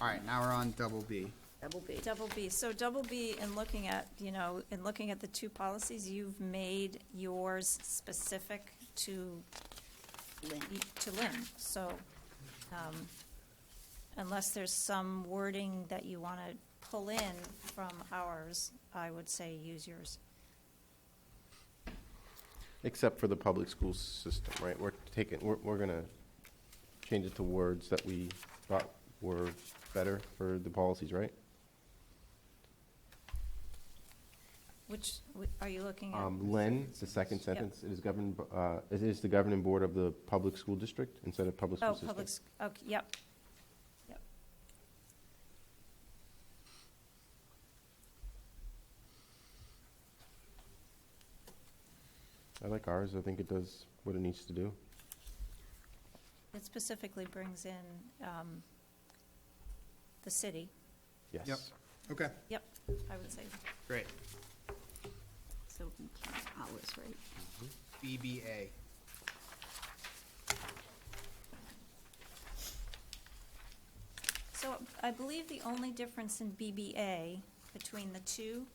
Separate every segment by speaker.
Speaker 1: All right, now we're on double B.
Speaker 2: Double B.
Speaker 3: Double B, so double B, in looking at, you know, in looking at the two policies, you've made yours specific to,
Speaker 2: Lynn.
Speaker 3: y- to Lynn, so, um, unless there's some wording that you wanna pull in from ours, I would say use yours.
Speaker 4: Except for the public school system, right? We're taking, we're, we're gonna change it to words that we thought were better for the policies, right?
Speaker 3: Which, wh- are you looking at?
Speaker 4: Um, Len, the second sentence, it is governed, b- uh, it is the governing board of the public school district instead of public school
Speaker 3: Oh,
Speaker 4: system.
Speaker 3: public, s- okay, yep, yep.
Speaker 4: I like ours. I think it does what it needs to do.
Speaker 3: It specifically brings in, um, the city,
Speaker 4: Yes.
Speaker 1: Yep. Okay,
Speaker 3: yep, I would say.
Speaker 1: great.
Speaker 2: So we can ours, right?
Speaker 1: BBA.
Speaker 3: So I believe the only difference in BBA between the two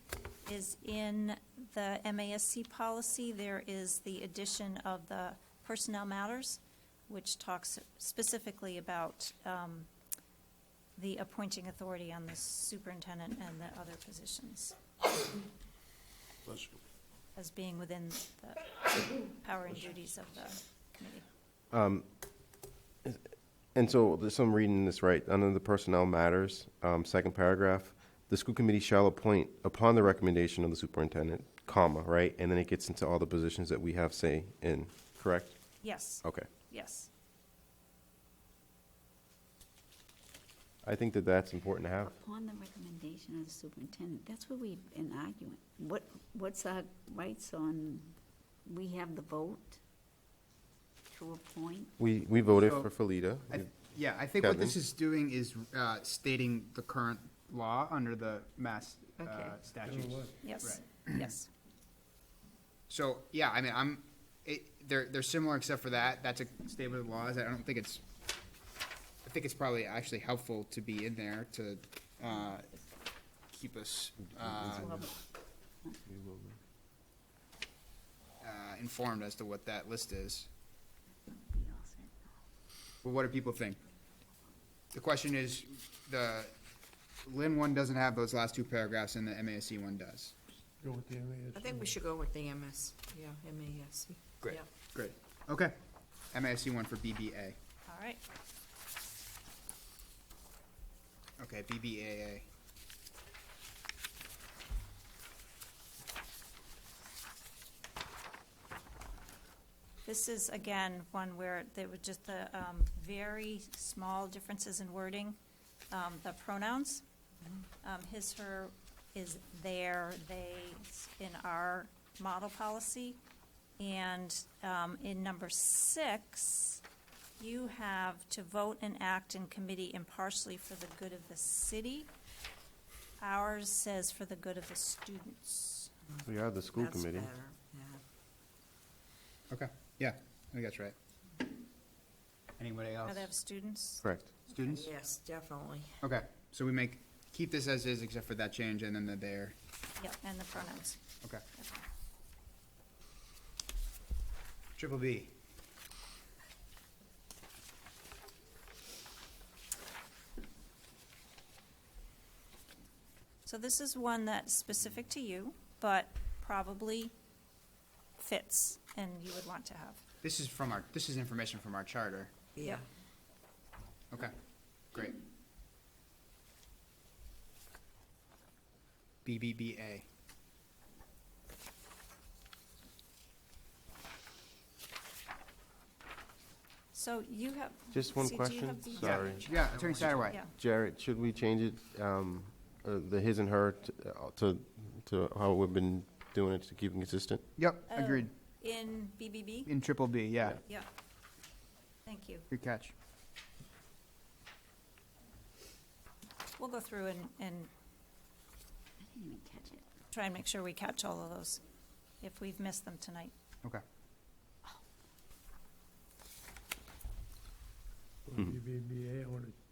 Speaker 3: is in the MASC policy, there is the addition of the personnel matters, which talks specifically about um, the appointing authority on the superintendent and the other positions as being within the power and duties of the committee.
Speaker 4: And so, this, I'm reading this right, under the personnel matters, um, second paragraph, the school committee shall appoint upon the recommendation of the superintendent, comma, right? And then it gets into all the positions that we have say in, correct?
Speaker 3: Yes,
Speaker 4: Okay.
Speaker 3: yes.
Speaker 4: I think that that's important to have.
Speaker 2: Upon the recommendation of the superintendent, that's where we've been arguing. What, what's our rights on, we have the vote to appoint?
Speaker 4: We, we voted
Speaker 1: So-
Speaker 4: for Felida.
Speaker 1: I- Yeah, I think what this
Speaker 4: Kevin?
Speaker 1: is doing is uh, stating the current law under the mass uh,
Speaker 2: Okay.
Speaker 1: statutes.
Speaker 3: Yes, yes.
Speaker 1: So, yeah, I mean, I'm, it, they're, they're similar except for that. That's a statement of laws. I don't think it's, I think it's probably actually helpful to be in there to, uh, keep us, uh, uh, informed as to what that list is. But what do people think? The question is, the Lin one doesn't have those last two paragraphs and the MASC one does.
Speaker 5: Go with the MASC.
Speaker 6: I think we should go with the MS, yeah, MASC.
Speaker 1: Great.
Speaker 6: E. Yeah.
Speaker 1: Great. Okay. MASC one for BBA.
Speaker 3: All right.
Speaker 1: Okay, BBAA.
Speaker 3: This is, again, one where there were just the um, very small differences in wording, um, the pronouns. Um, His, her is their, they in our model policy. And um, in number six, you have to vote and act in committee impartially for the good of the city. Ours says for the good of the students.
Speaker 4: We are the school
Speaker 6: That's
Speaker 4: committee.
Speaker 6: better, yeah.
Speaker 1: Okay, yeah, I think that's right. Anybody else?
Speaker 3: Are there students?
Speaker 4: Correct.
Speaker 1: Students?
Speaker 6: Yes, definitely.
Speaker 1: Okay, so we make, keep this as is except for that change and then the there.
Speaker 3: Yeah, and the pronouns.
Speaker 1: Okay. Triple B.
Speaker 3: So this is one that's specific to you, but probably fits and you would want to have.
Speaker 1: This is from our, this is information from our charter.
Speaker 6: Yeah.
Speaker 1: Okay, great. BBBA.
Speaker 3: So you have.
Speaker 4: Just one
Speaker 3: see, do you
Speaker 4: question?
Speaker 3: have the-
Speaker 1: Yeah,
Speaker 4: Sorry.
Speaker 1: Yeah, Attorney Satterwhite.
Speaker 3: Yeah,
Speaker 4: Jared, should we change it, um, uh, the his and her t- uh, to, to how we've been doing it to keep it consistent?
Speaker 1: Yep,
Speaker 3: Oh.
Speaker 1: agreed.
Speaker 3: in BBB?
Speaker 1: In triple B, yeah,
Speaker 3: Yeah. Thank you.
Speaker 1: good catch.
Speaker 3: We'll go through and, and
Speaker 2: I didn't even catch it.
Speaker 3: try and make sure we catch all of those if we've missed them tonight.
Speaker 1: Okay.
Speaker 5: BBBA, I want to